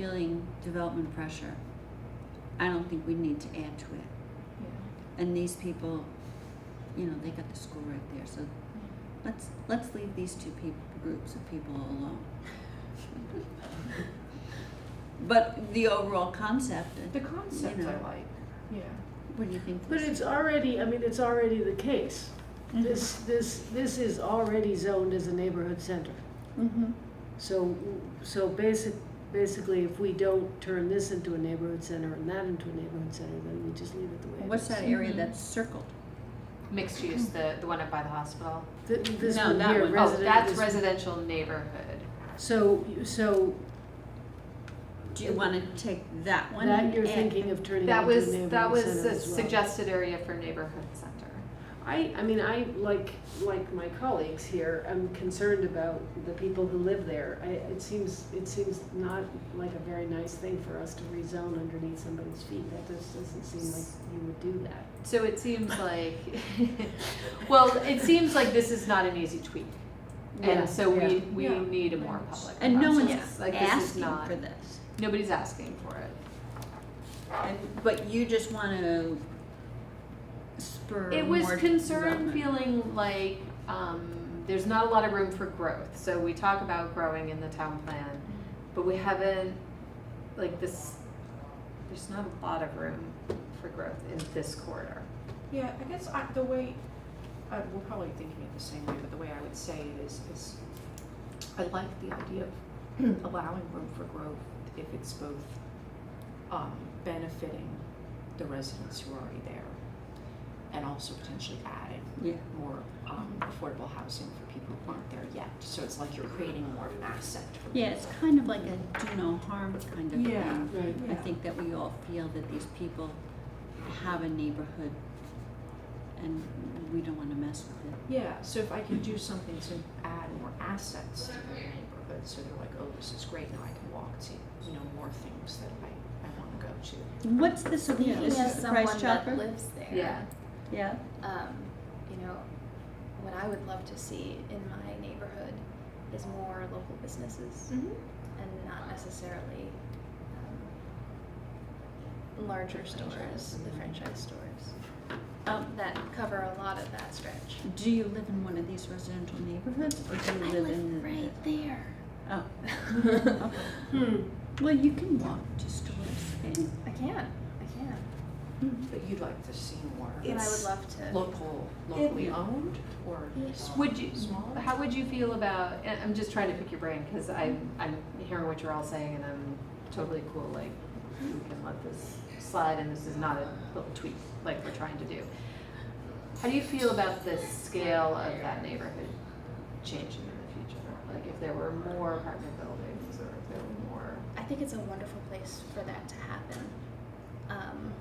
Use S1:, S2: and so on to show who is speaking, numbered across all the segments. S1: feeling development pressure, I don't think we need to add to it. And these people, you know, they got the school right there, so let's, let's leave these two peop groups of people alone. But the overall concept,
S2: The concept
S1: You know.
S2: I like. Yeah.
S1: what do you think?
S3: But
S1: Lisa?
S3: it's already, I mean, it's already the case.
S1: Mm-hmm.
S3: This, this, this is already zoned as a neighborhood center.
S4: Mm-hmm.
S1: Mhm.
S3: So, so basic, basically, if we don't turn this into a neighborhood center and that into a neighborhood center, then we just leave it the way it is.
S1: What's that area
S4: Mm-hmm.
S2: Mhm.
S1: that's circled?
S4: Mixed use, the, the one up by the hospital.
S3: Th- This
S1: No,
S3: one
S1: that
S3: here,
S1: one.
S3: resident.
S4: Oh, that's
S3: this-
S4: residential neighborhood.
S3: So, so
S1: Do you wanna take that one?
S3: that you're
S1: and-
S3: thinking of turning
S4: That
S3: into a
S4: was,
S3: neighborhood
S4: that was
S3: center
S4: a
S3: as well.
S4: suggested area for neighborhood center.
S3: I, I mean, I, like, like my colleagues here, I'm concerned about the people who live there. I, it seems, it seems not like a very nice thing for us to rezone underneath somebody's feet. That just doesn't seem like you would do that.
S4: So it seems like, well, it seems like this is not an easy tweak.
S3: Yeah,
S4: And so we,
S3: yeah.
S4: we
S2: Yeah.
S4: need a more public
S1: And no one's
S4: process. Like, this is
S1: asking
S4: not,
S1: for this,
S4: nobody's asking for it.
S1: and, but you just wanna spur
S4: It was
S1: more
S4: concern
S1: development.
S4: feeling like um, there's not a lot of room for growth. So we talk about growing in the town plan, but we haven't like this. There's not a lot of room for growth in this corridor.
S2: Yeah, I guess I, the way, uh, we're probably thinking it the same way, but the way I would say it is, is I like the idea of allowing room for growth if it's both, um, benefiting the residents who are already there and also potentially adding
S1: Yeah,
S2: more, um, affordable housing for people who aren't there yet. So it's like you're creating more of an asset for people.
S1: yeah, it's kind of like a do no harm kind of
S2: Yeah.
S1: thing.
S3: Right.
S1: I think that we all feel that these people have a neighborhood and we don't wanna mess with it.
S2: Yeah, so if I can do something to add more assets to the neighborhood, so they're like, oh, this is great, now I can walk to, you know, more things that I, I wanna go to.
S1: What's this,
S5: Speaking
S1: this
S5: as
S1: is the
S5: someone
S1: price
S5: that
S1: chopper?
S5: lives there,
S4: Yeah.
S1: Yeah,
S5: um, you know, what I would love to see in my neighborhood is more local businesses and not necessarily um, larger stores, the franchise stores
S1: um,
S5: that cover a lot of that stretch.
S1: do you live in one of these residential neighborhoods or do
S5: I
S1: you live in?
S5: live right there.
S1: Oh,
S5: I
S3: Hmm.
S1: well, you can walk to stores and.
S5: can, I can.
S2: But you'd like to see more
S5: And I would love to.
S2: local, locally
S1: It-
S2: owned or small?
S4: Would you?
S2: Smaller?
S4: How would you feel about? And I'm just trying to pick your brain because I'm I'm hearing what you're all saying and I'm totally cool. Like we can let this slide and this is not a little tweak like we're trying to do. How do you feel about the scale of that neighborhood changing in the future? Like if there were more apartment buildings or if there were more.
S5: I think it's a wonderful place for that to happen. Um,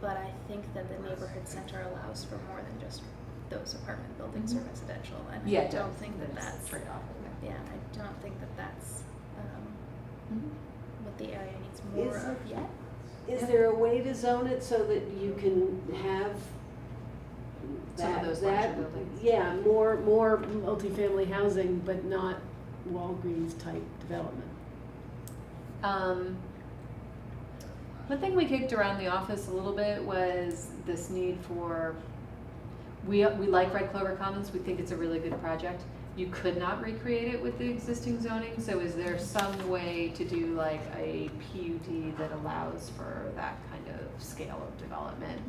S5: but I think that the neighborhood center allows for more than just those apartment buildings or residential, and I don't think that that's
S4: trade off.
S5: yeah, I don't think that that's um,
S4: Mhm.
S5: what the area needs more
S3: Is-
S5: of yet.
S3: Is there a way to zone it so that you can have
S4: Some of
S3: that,
S4: those larger
S3: that,
S4: buildings.
S3: yeah, more, more multifamily housing, but not Walgreens type development?
S4: Um, one thing we kicked around the office a little bit was this need for, we, we like Red Clover Commons, we think it's a really good project. You could not recreate it with the existing zoning, so is there some way to do like a PUD that allows for that kind of scale of development?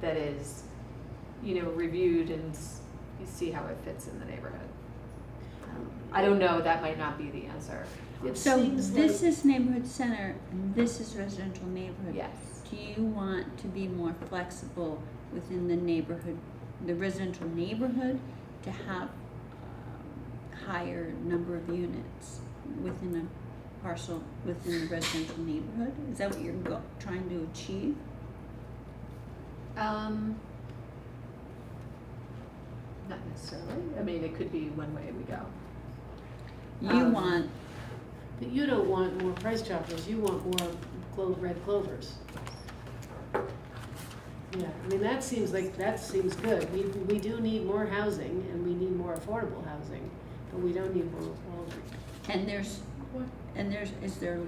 S4: That is, you know, reviewed and s- you see how it fits in the neighborhood? Um, I don't know, that might not be the answer. Um,
S3: It
S1: So
S3: seems
S1: this
S3: like-
S1: is neighborhood center and this is residential neighborhood.
S4: Yes.
S1: Do you want to be more flexible within the neighborhood, the residential neighborhood, to have um, higher number of units within a parcel, within the residential neighborhood? Is that what you're go- trying to achieve?
S4: Um, not necessarily. I mean, it could be one way we go.
S1: You
S4: Um,
S1: want,
S3: But you don't want more price choppers, you want more clo- red clovers. Yeah, I mean, that seems like, that seems good. We, we do need more housing and we need more affordable housing, but we don't need more Walgreens.
S1: and there's, and there's, is there